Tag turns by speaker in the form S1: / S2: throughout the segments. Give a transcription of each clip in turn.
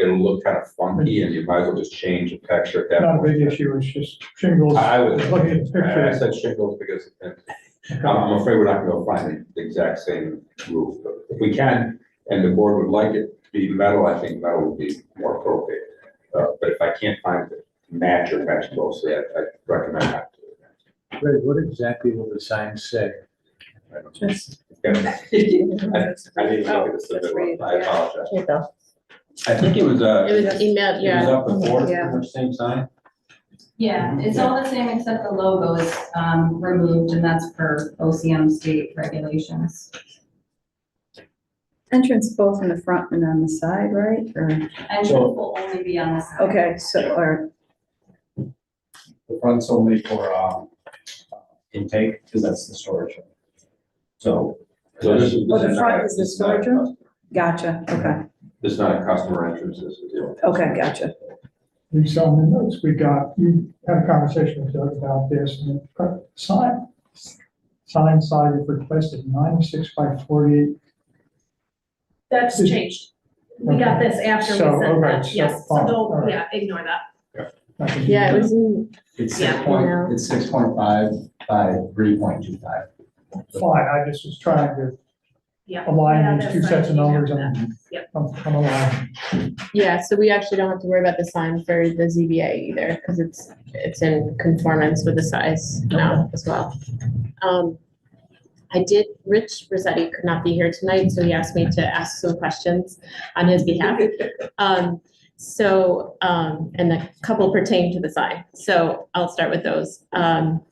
S1: it'll look kind of funky and you might as well just change the texture at that
S2: Not a
S1: point.
S2: big issue, it's just shingles.
S1: I I would,
S2: Look at the
S1: I I
S2: picture.
S1: said shingles because I'm, I'm afraid we're not gonna find the exact same roof, but if we can, and the board would like it to be metal, I think metal would be more appropriate. Uh, but if I can't find the match or match closely, I, I recommend not to.
S3: Ray, what exactly will the sign say?
S1: I don't-
S4: Just-
S1: Yeah,
S5: Oh,
S1: I didn't look at the submitted one, I apologize. I think it was, uh,
S5: It was emailed,
S1: it was
S5: yeah.
S1: up before,
S5: Yeah.
S1: pretty much same sign.
S6: Yeah, it's all the same except the logo is um, removed and that's per OCM state regulations.
S4: Entrance both in the front and on the side, right? Or,
S6: Entrance will only be on the side.
S4: okay, so, or,
S7: The front's only for, um, intake, because that's the storage. room. So,
S1: So this is.
S4: Oh, the
S1: this
S4: front
S1: not-
S4: is the
S1: this not a
S4: storage room?
S1: custom-
S4: gotcha, okay,
S1: This is not a customer entrance, this is, you know,
S4: okay, gotcha.
S2: We saw in the notes, we got, we had a conversation with Doug about this, and it cut- sign, sign size is requested ninety-six by forty-eight.
S5: That's changed. We got this after we
S2: So,
S5: sent
S2: okay,
S5: that,
S2: so
S5: yes, so
S2: fine, all
S5: don't,
S2: right.
S5: yeah, ignore that.
S2: I can do
S5: Yeah, it
S2: that.
S5: was in,
S7: it's
S5: Yeah,
S7: six
S5: you
S7: point,
S5: know.
S7: it's six point five by three point two five.
S2: Fine, I just was trying to
S5: yeah. Yeah,
S2: align these
S5: that's
S2: two
S5: fine,
S2: sets of
S5: you know
S2: numbers
S5: that.
S2: and
S5: Yep.
S2: I'm, I'm aligned.
S5: Yeah, so we actually don't have to worry about the sign for the ZBA either, because it's, it's in conformance with the size now as well. Um, I did, Rich Rossetti could not be here tonight, so he asked me to ask some questions on his behalf. Um, so, um, and a couple pertain to the sign, so I'll start with those. Um,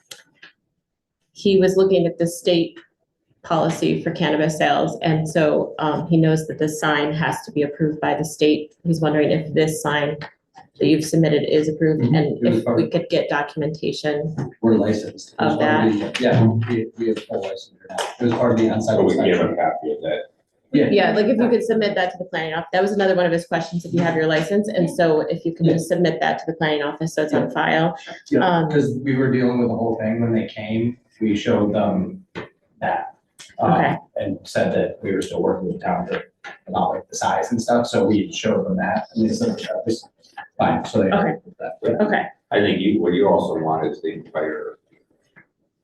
S5: he was looking at the state policy for cannabis sales. And so um, he knows that this sign has to be approved by the state. He's wondering if this sign that you've submitted is approved
S7: Mhm.
S5: and if we could get documentation.
S7: We're licensed.
S5: Of
S7: that? Yeah, we, we have full license. now. It was part of the onsite.
S1: so we can give a
S7: inspection.
S1: copy of that.
S7: Yeah,
S5: Yeah, like if you could submit that to the planning office. That was another one of his questions, if you have your license. And so if you can just submit that to the planning office, so it's on file.
S7: yeah,
S5: Um,
S7: because we were dealing with the whole thing when they came, we showed them that. um,
S5: Okay.
S7: And said that we were still working with town to, about like the size and stuff, so we showed them that, and they said, that was fine, so they.
S5: Okay. Okay,
S1: I think you, what you also want is the entire,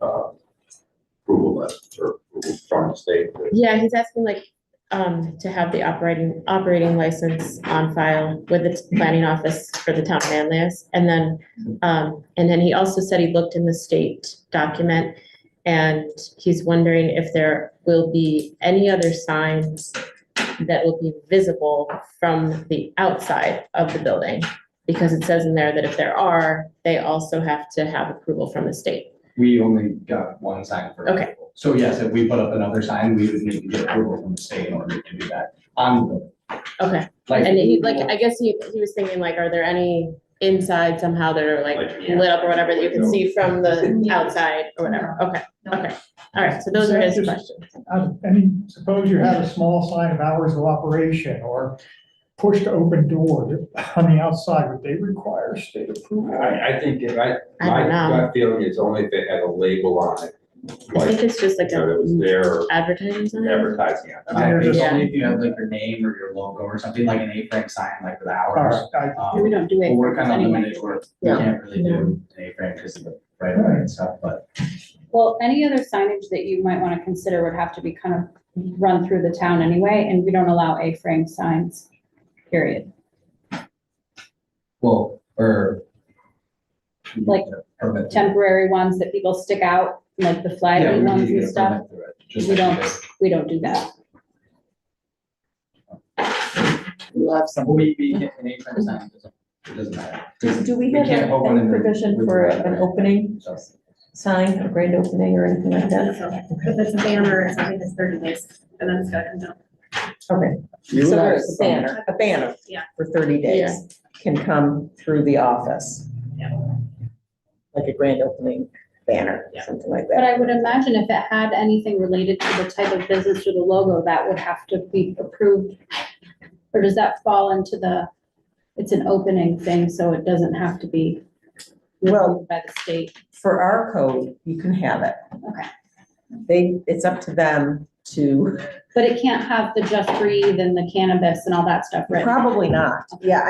S1: uh, approval list or approval from the state.
S5: yeah, he's asking like um, to have the operating, operating license on file with the planning office for the town of Manlius. And then, um, and then he also said he looked in the state document and he's wondering if there will be any other signs that will be visible from the outside of the building. Because it says in there that if there are, they also have to have approval from the state.
S7: We only got one sign for.
S5: Okay.
S7: approval. So yes, if we put up another sign, we would need to get approval from the state in order to do that. On the,
S5: Okay.
S7: like.
S5: And he, like, I guess he, he was thinking like, are there any inside somehow that are like
S1: Like,
S5: lit up or whatever that you can see from the
S6: Yeah.
S5: outside or whatever? Okay,
S6: No.
S5: okay. All right, so those are his
S2: Just-
S5: questions.
S2: Uh, I mean, suppose you have a small sign of hours of operation or push to open door on the outside, would they require state approval?
S1: I, I think, if I,
S5: I
S1: my
S5: don't know.
S1: gut feeling is only if it had a label on it,
S5: I
S1: like,
S5: think it's just like
S1: you know, that was
S5: a
S1: their
S5: advertising sign.
S1: advertising on it.
S7: I think it's
S5: Yeah.
S7: only if you have like your name or your logo or something, like an A-frame sign, like with
S2: All
S7: hours.
S2: right, I-
S7: Um,
S4: we don't do
S7: Well,
S4: it.
S7: we're kind of
S4: anyway.
S7: limited, we're, we
S5: Yeah.
S7: can't really do an A-frame because of the right of way and stuff, but
S8: Well, any other signage that you might want to consider would have to be kind of run through the town anyway, and we don't allow A-frame signs, period.
S7: well, or.
S8: Like
S7: Permit.
S8: Temporary ones that people stick out, like the
S7: Yeah, we
S8: flag
S7: would need
S8: ones
S7: to get
S8: and
S7: a
S8: stuff,
S7: permit through it, just
S8: We
S7: like
S8: don't-
S7: did.
S8: we don't do that.
S7: Well, we, we can, an A-frame sign doesn't, it doesn't matter.
S4: Do- do we have
S7: can't put one
S4: a- a
S7: in the-
S4: provision
S7: with
S4: for
S7: the right of
S4: an
S7: way,
S4: opening?
S7: so.
S4: Sign, a grand opening or anything like that?
S5: If it's a banner or something, it's thirty days and then it's gotta come down.
S9: Okay,
S7: You
S9: so
S7: would
S9: there's a
S7: ask them.
S9: banner, a banner
S5: Yeah.
S9: for thirty days can come through the office.
S5: Yeah.
S9: Like a grand opening banner,
S5: Yeah.
S9: something like
S8: But
S9: that.
S8: I would imagine if it had anything related to the type of business or the logo, that would have to be approved. Or does that fall into the, it's an opening thing, so it doesn't have to be
S9: Well-
S8: approved by the state?
S9: For our code, you can have it.
S8: Okay.
S9: They, it's up to them to,
S8: But it can't have the just breathe and the cannabis and all that stuff, right?
S9: probably not. Yeah,